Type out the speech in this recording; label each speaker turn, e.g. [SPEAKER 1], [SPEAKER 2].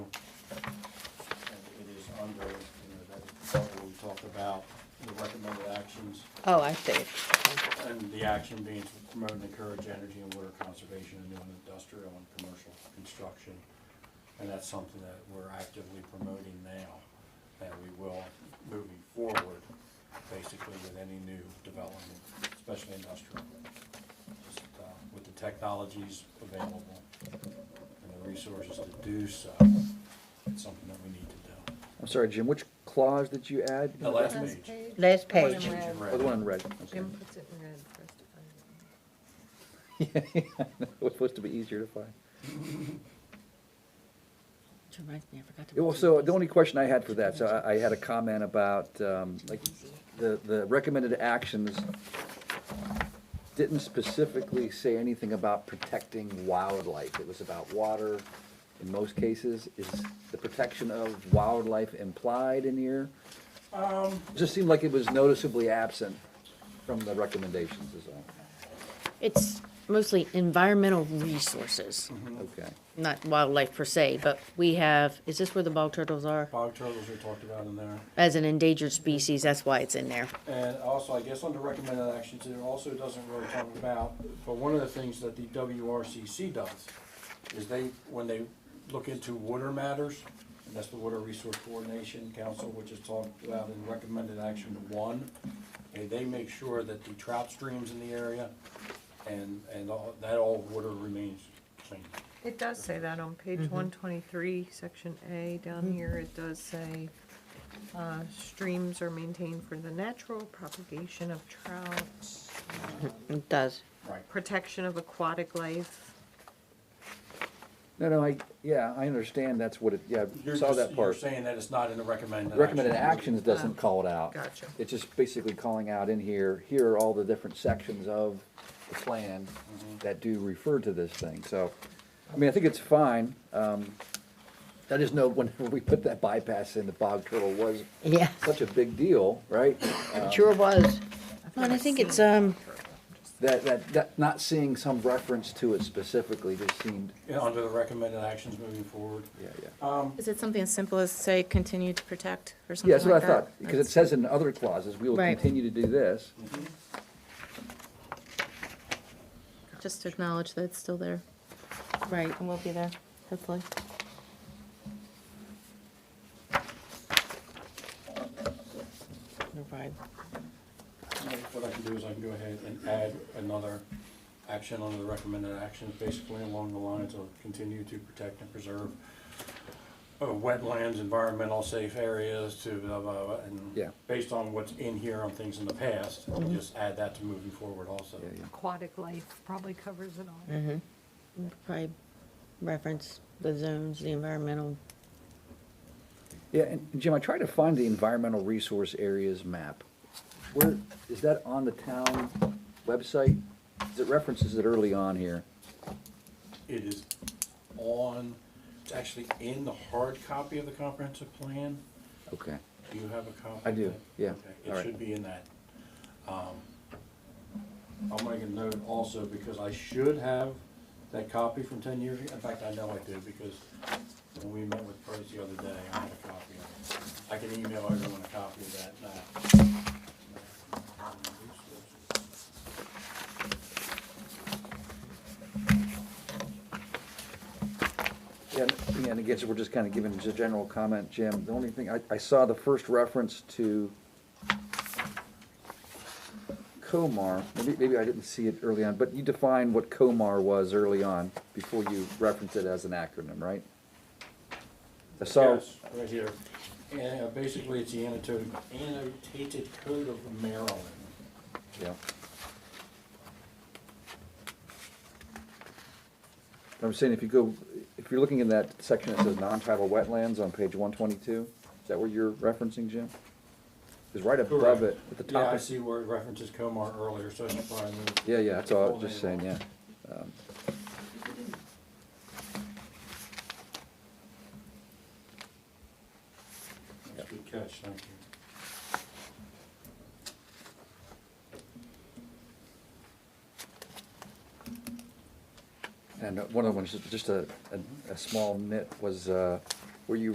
[SPEAKER 1] Oh, I see.
[SPEAKER 2] And the action being to promote and encourage energy and water conservation in new and industrial and commercial construction. And that's something that we're actively promoting now, and we will moving forward, basically with any new development, especially industrial. Just, uh, With the technologies available and the resources to do so, it's something that we need to do.
[SPEAKER 3] I'm sorry, Jim, which clause did you add?
[SPEAKER 2] The last
[SPEAKER 4] Last
[SPEAKER 2] page.
[SPEAKER 1] Last
[SPEAKER 4] page. The one
[SPEAKER 1] page.
[SPEAKER 4] in
[SPEAKER 2] Change in
[SPEAKER 3] Oh, the one in red.
[SPEAKER 4] Jim puts it in red for us to find it.
[SPEAKER 3] It was supposed to be easier to find.
[SPEAKER 5] Which reminds me, I forgot to.
[SPEAKER 3] Yeah, Well,
[SPEAKER 5] mention
[SPEAKER 3] so
[SPEAKER 5] these.
[SPEAKER 3] uh, the only question I had for that, so I- I had a comment about, um, like, the, the recommended actions didn't specifically say anything about protecting wildlife. It was about water in most cases. Is the protection of wildlife implied in here? It Just seemed like it was noticeably absent from the recommendations is all.
[SPEAKER 5] It's mostly environmental resources,
[SPEAKER 3] Okay.
[SPEAKER 5] not wildlife per se, but we have, is this where the bog turtles are?
[SPEAKER 2] Bog turtles are talked about in there.
[SPEAKER 5] As an endangered species, that's why it's in there.
[SPEAKER 2] And also, I guess under recommended actions, it also doesn't really talk about, but one of the things that the WRCC does is they, when they look into water matters, and that's the Water Resource Coordination Council, which is talked about in recommended action one, and they make sure that the trout streams in the area and, and all, that all water remains clean.
[SPEAKER 4] It does say that on page
[SPEAKER 1] Mm-hmm.
[SPEAKER 4] one twenty-three, section A, down here, it does say, uh, streams are maintained for the natural propagation of trout,
[SPEAKER 5] It does.
[SPEAKER 2] Right.
[SPEAKER 4] protection of aquatic life.
[SPEAKER 3] No, no, I, yeah, I understand that's what it, yeah, I
[SPEAKER 2] You're
[SPEAKER 3] saw
[SPEAKER 2] just-
[SPEAKER 3] that
[SPEAKER 2] You're
[SPEAKER 3] part.
[SPEAKER 2] saying that it's not in the recommended.
[SPEAKER 3] Recommended
[SPEAKER 2] action.
[SPEAKER 3] actions doesn't call it out.
[SPEAKER 4] Gotcha.
[SPEAKER 3] It's just basically calling out in here, here are all the different sections of the plan
[SPEAKER 2] Mm-hmm.
[SPEAKER 3] that do refer to this thing, so, I mean, I think it's fine. um, I just know whenever we put that bypass in, the bog turtle was
[SPEAKER 1] Yeah,
[SPEAKER 3] such a big deal, right?
[SPEAKER 1] it
[SPEAKER 3] Um,
[SPEAKER 1] sure was.
[SPEAKER 5] Well, and I think it's, um,
[SPEAKER 3] That, that, that, not seeing some reference to it specifically just seemed,
[SPEAKER 2] Yeah, Under the recommended actions moving forward.
[SPEAKER 3] yeah, yeah.
[SPEAKER 6] Is it something as simple as say, continue to protect or something
[SPEAKER 3] Yeah,
[SPEAKER 6] like
[SPEAKER 3] that's
[SPEAKER 6] that?
[SPEAKER 3] what I thought, because it
[SPEAKER 6] That's-
[SPEAKER 3] says in other clauses, we will
[SPEAKER 5] Right.
[SPEAKER 3] continue to do this.
[SPEAKER 6] Just to acknowledge that it's still there
[SPEAKER 5] right,
[SPEAKER 6] and will be there, hopefully.
[SPEAKER 5] you're right.
[SPEAKER 2] What I can do is I can go ahead and add another action under the recommended actions, basically along the lines of continue to protect and preserve uh, wetlands, environmental safe areas to blah, blah, blah,
[SPEAKER 3] Yeah. Mm-hmm.
[SPEAKER 2] and based on what's in here on things in the past, just add that to moving forward also.
[SPEAKER 3] Yeah, yeah.
[SPEAKER 4] Aquatic life probably covers it all.
[SPEAKER 5] Probably reference the zones, the environmental.
[SPEAKER 3] Yeah, and Jim, I tried to find the environmental resource areas map. Where, is that on the town website? 'Cause It references it early on here.
[SPEAKER 2] It is on, it's actually in the hard copy of the comprehensive plan.
[SPEAKER 3] Okay.
[SPEAKER 2] Do you have a copy?
[SPEAKER 3] I do,
[SPEAKER 2] of that?
[SPEAKER 3] yeah,
[SPEAKER 2] Okay,
[SPEAKER 3] all
[SPEAKER 2] It
[SPEAKER 3] right.
[SPEAKER 2] should be in that. Um, I'll make a note also, because I should have that copy from ten years ago. In fact, I know I do, because when we met with Price the other day, I had a copy of it. I can email everyone a copy of that now.
[SPEAKER 3] Yeah, and- yeah, and again, so we're just kind of giving just a general comment, Jim. The only thing, I, I saw the first reference to COMAR. Maybe, maybe I didn't see it early on, but you defined what COMAR was early on before you referenced it as an acronym, right? I saw,
[SPEAKER 2] Yes, right here. And uh, basically, it's the annotated, annotated code of Maryland.
[SPEAKER 3] Yeah. I'm saying if you go, if you're looking in that section that says non-tidal wetlands on page one twenty-two, is that where you're referencing, Jim? Is right above it, at the
[SPEAKER 2] Yeah,
[SPEAKER 3] top.
[SPEAKER 2] I
[SPEAKER 3] of-
[SPEAKER 2] see where it references Comar earlier, so it's probably. moved.
[SPEAKER 3] Yeah, yeah, that's all, I was
[SPEAKER 2] Full
[SPEAKER 3] just
[SPEAKER 2] name
[SPEAKER 3] saying, yeah. Um,
[SPEAKER 2] That's a Good catch, thank you.
[SPEAKER 3] And one of the ones, just a, a, a small nit was, uh, where you